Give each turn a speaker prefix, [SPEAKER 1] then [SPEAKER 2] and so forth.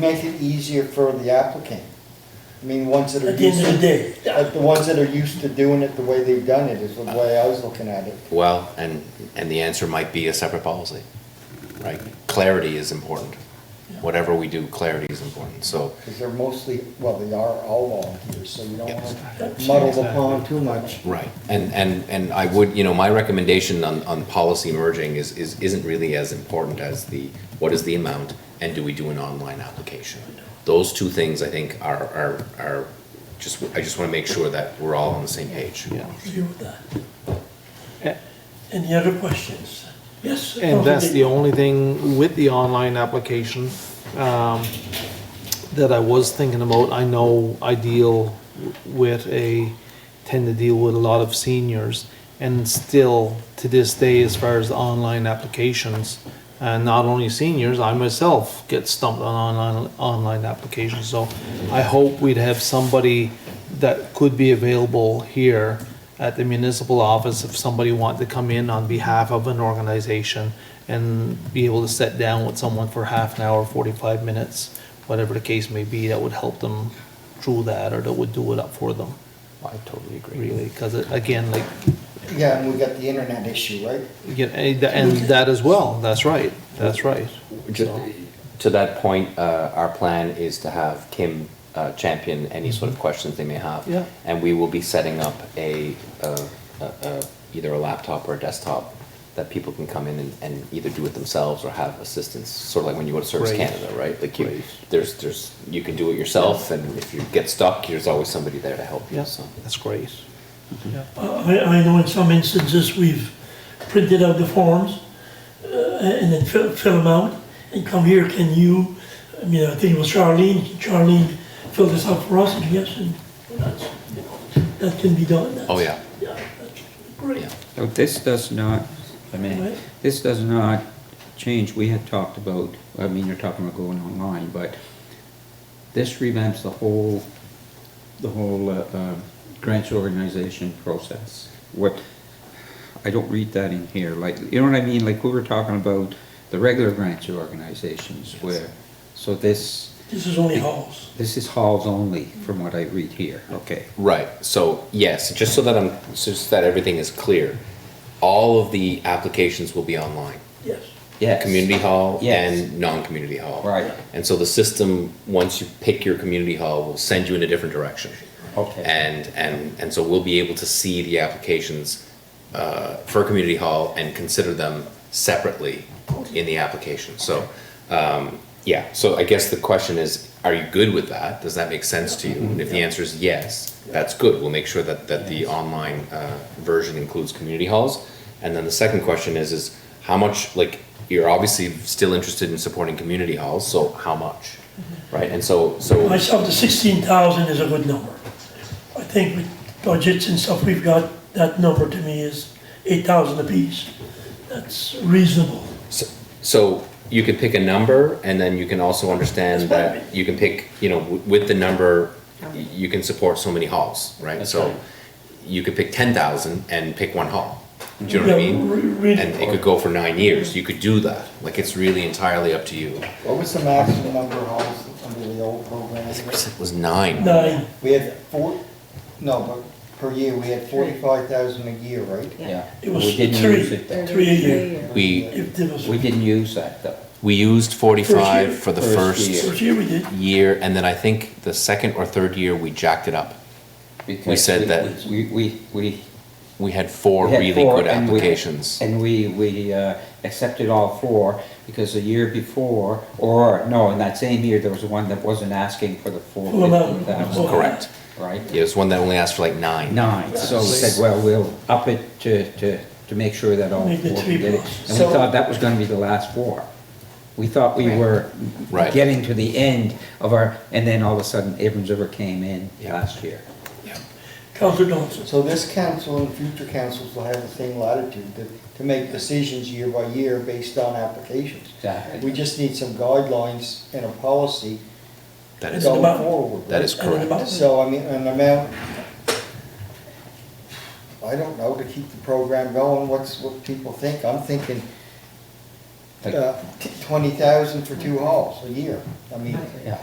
[SPEAKER 1] make it easier for the applicant. I mean, ones that are
[SPEAKER 2] At the end
[SPEAKER 1] used
[SPEAKER 2] of the
[SPEAKER 1] to,
[SPEAKER 2] day,
[SPEAKER 1] like the ones that are used to doing it the way they've done it is the way I was looking at it.
[SPEAKER 3] Well, and, and the answer might be a separate policy, right? Clarity is important. Whatever we do, clarity is important, so,
[SPEAKER 1] Because they're mostly, well, they are all volunteers, so you don't want to muddle the pond too much.
[SPEAKER 3] right. And, and, and I would, you know, my recommendation on, on policy merging is, is, isn't really as important as the, what is the amount, and do we do an online application? Those two things, I think, are, are, are, just, I just wanna make sure that we're all on the same page. Yeah.
[SPEAKER 2] deal with that.
[SPEAKER 4] A-
[SPEAKER 2] Any other questions? Yes?
[SPEAKER 4] And that's the
[SPEAKER 2] Councilman
[SPEAKER 4] only thing with the online application um, that I was thinking about. I know I deal with a, tend to deal with a lot of seniors. And still, to this day, as far as online applications, uh, not only seniors, I myself get stumped on online, online applications. So I hope we'd have somebody that could be available here at the municipal office if somebody wanted to come in on behalf of an organization and be able to sit down with someone for half an hour, forty-five minutes, whatever the case may be, that would help them through that or that would do it up for them,
[SPEAKER 3] I totally agree.
[SPEAKER 4] really. Because again, like,
[SPEAKER 1] Yeah, and we got the internet issue, right?
[SPEAKER 4] you know, and tha- and that as well, that's right, that's right.
[SPEAKER 3] Ju- To that point, uh, our plan is to have Kim uh, champion any sort of questions they may have.
[SPEAKER 4] Yeah.
[SPEAKER 3] And we will be setting up a, uh, a- a- either a laptop or a desktop that people can come in and- and either do it themselves or have assistance, sort of like when you go to Service
[SPEAKER 4] Right.
[SPEAKER 3] Canada, right? Like you,
[SPEAKER 4] Right.
[SPEAKER 3] there's, there's, you can do it yourself, and if you get stuck, there's always somebody there to help you,
[SPEAKER 4] Yes,
[SPEAKER 3] so.
[SPEAKER 4] that's great.
[SPEAKER 2] Uh, I, I know in some instances, we've printed out the forms, uh, and then fill, fill them out, and come here, can you, I mean, I think it was Charlene, can Charlene fill this out for us, and yes, and that's, you know, that can be done. that's-
[SPEAKER 3] Oh, yeah.
[SPEAKER 2] Yeah, that's great.
[SPEAKER 3] Yeah.
[SPEAKER 5] So this does not, I
[SPEAKER 2] Right.
[SPEAKER 5] mean, this does not change, we had talked about, I mean, you're talking about going online, but this revamps the whole, the whole uh, uh, grants organization process. What, I don't read that in here, like, you know what I mean, like, we were talking about the regular grants organizations where, so this,
[SPEAKER 2] This is only halls.
[SPEAKER 5] this is halls only, from what I read here, okay.
[SPEAKER 3] Right, so yes, just so that I'm, just that everything is clear, all of the applications will be online.
[SPEAKER 2] yes.
[SPEAKER 5] Yes.
[SPEAKER 3] community hall
[SPEAKER 5] Yes.
[SPEAKER 3] and non-community hall.
[SPEAKER 5] Right.
[SPEAKER 3] And so the system, once you pick your community hall, will send you in a different direction.
[SPEAKER 5] Okay.
[SPEAKER 3] And, and, and so we'll be able to see the applications uh, for community hall and consider them separately in the application. So, um, yeah, so I guess the question is, are you good with that? Does that make sense to you? And if the answer is yes, that's good. We'll make sure that, that the online uh, version includes community halls. And then the second question is, is how much, like, you're obviously still interested in supporting community halls, so how much? Right, and so, so.
[SPEAKER 2] Myself, the sixteen thousand is a good number. I think with budgets and stuff we've got, that number to me is eight thousand apiece. That's reasonable.
[SPEAKER 3] So- So you can pick a number and then you can also understand
[SPEAKER 2] That's what I
[SPEAKER 3] that you can pick, you know, w- with the number, y- you can support so many halls, right? So you could pick ten thousand and pick one hall. Do you know what I
[SPEAKER 2] Yeah,
[SPEAKER 3] mean?
[SPEAKER 2] re- really.
[SPEAKER 3] And it could go for nine years. You could do that. Like it's really entirely up to you.
[SPEAKER 1] What was the maximum number of halls under the old program?
[SPEAKER 3] It was nine.
[SPEAKER 2] Nine,
[SPEAKER 1] We had four, no, but per year, we had forty-five thousand a year, right?
[SPEAKER 5] Yeah.
[SPEAKER 2] It was
[SPEAKER 5] We didn't
[SPEAKER 2] three.
[SPEAKER 5] use it though.
[SPEAKER 2] Three a year.
[SPEAKER 3] We,
[SPEAKER 2] if there was,
[SPEAKER 5] We didn't use that though.
[SPEAKER 3] we used forty-five for the
[SPEAKER 5] First year.
[SPEAKER 3] first
[SPEAKER 2] first year we did,
[SPEAKER 3] year and then I think the second or third year we jacked it up.
[SPEAKER 5] Because
[SPEAKER 3] said that-
[SPEAKER 5] We, we, we.
[SPEAKER 3] We had four
[SPEAKER 5] we had
[SPEAKER 3] really
[SPEAKER 5] four
[SPEAKER 3] good
[SPEAKER 5] and we-
[SPEAKER 3] applications.
[SPEAKER 5] And we, we uh, accepted all four, because the year before, or, no, in that same year, there was one that wasn't asking for the full
[SPEAKER 2] Full amount.
[SPEAKER 5] fifteen thousand.
[SPEAKER 2] Full.
[SPEAKER 3] Correct.
[SPEAKER 5] Right?
[SPEAKER 3] Yeah, it was one that only asked for like nine.
[SPEAKER 5] Nine, so we said, well, we'll up it to, to, to make sure that all
[SPEAKER 2] Make it
[SPEAKER 5] four
[SPEAKER 2] three
[SPEAKER 5] can get it.
[SPEAKER 2] plus.
[SPEAKER 5] And we
[SPEAKER 1] So-
[SPEAKER 5] thought that was gonna be the last four. We thought we were
[SPEAKER 3] Right.
[SPEAKER 5] getting to the end of our, and then all of a sudden, Abrams River came in last year.
[SPEAKER 2] Counselor Johnson.
[SPEAKER 1] So this council and future councils will have the same latitude to, to make decisions year by year based on applications.
[SPEAKER 5] Exactly.
[SPEAKER 1] We just need some guidelines and a policy
[SPEAKER 3] That
[SPEAKER 1] going
[SPEAKER 3] is,
[SPEAKER 2] It's about-
[SPEAKER 1] forward.
[SPEAKER 3] that is
[SPEAKER 2] And then
[SPEAKER 3] correct.
[SPEAKER 2] about-
[SPEAKER 1] So, I mean, an amount, I don't know, to keep the program going, what's, what people think. I'm thinking
[SPEAKER 5] Like-
[SPEAKER 1] uh, twenty thousand for two halls a year. I mean,
[SPEAKER 5] Yeah.